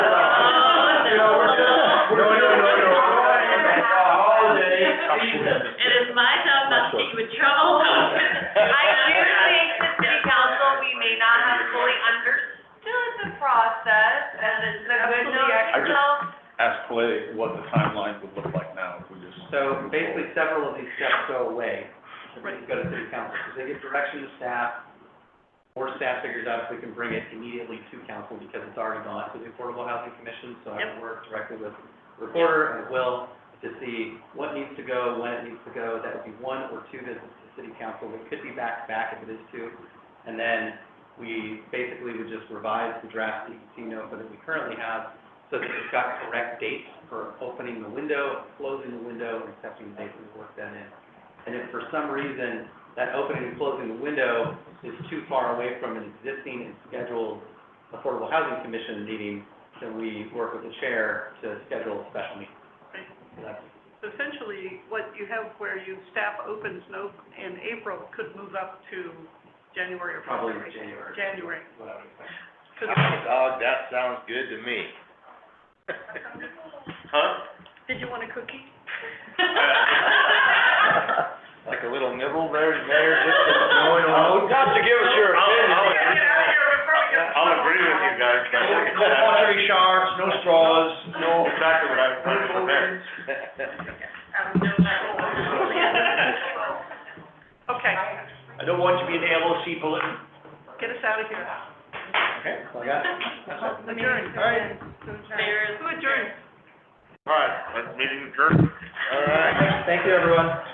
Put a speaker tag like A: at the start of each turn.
A: I just-
B: myself,
A: ask Clay what the timeline would look like now if we just.
C: So basically, several of these steps go away, if we go to city council, because they give direction to staff, or staff figures out if we can bring it immediately to council, because it's already gone to the Affordable Housing Commission, so I
B: Yep.
C: work directly with the recorder and Will to see what needs to go, when it needs to go, that would be one or two visits to city council, it could be back to back if it is two, and then we basically would just revise the draft E EPC NOFA that we currently have, so that it's got correct dates for opening the window, closing the window, and accepting the date we worked that in. And if for some reason, that opening and closing the window is too far away from an existing and scheduled Affordable Housing Commission meeting, then we work with the chair to schedule a special meeting.
D: Right.
C: So that's-
D: So essentially, what you have where you staff opens no, in April could move up to January or
C: Probably
D: February.
C: January.
D: January.
C: What I would expect.
D: Could-
E: Oh, that sounds good to me. Huh?
D: Did you want a cookie?
E: Like a little nibble there, Mayor, just to
A: No, no, no.
E: Not Oh, to give us your
A: I'll-
E: opinion.
A: I'll agree.
D: Get out of here before we get-
E: I'll agree with you guys, but look at
A: No
E: that.
A: pottery shards, no straws, no.
E: Exactly what I wanted from there.
D: Okay,
A: I don't want you to be an LLC bulletin.
D: get us out of here.
C: Okay, so I got it.
D: Adjourn.
A: All right.
D: Who adjourned?
E: All right, let's meeting adjourned. All right.
C: Thank you, everyone.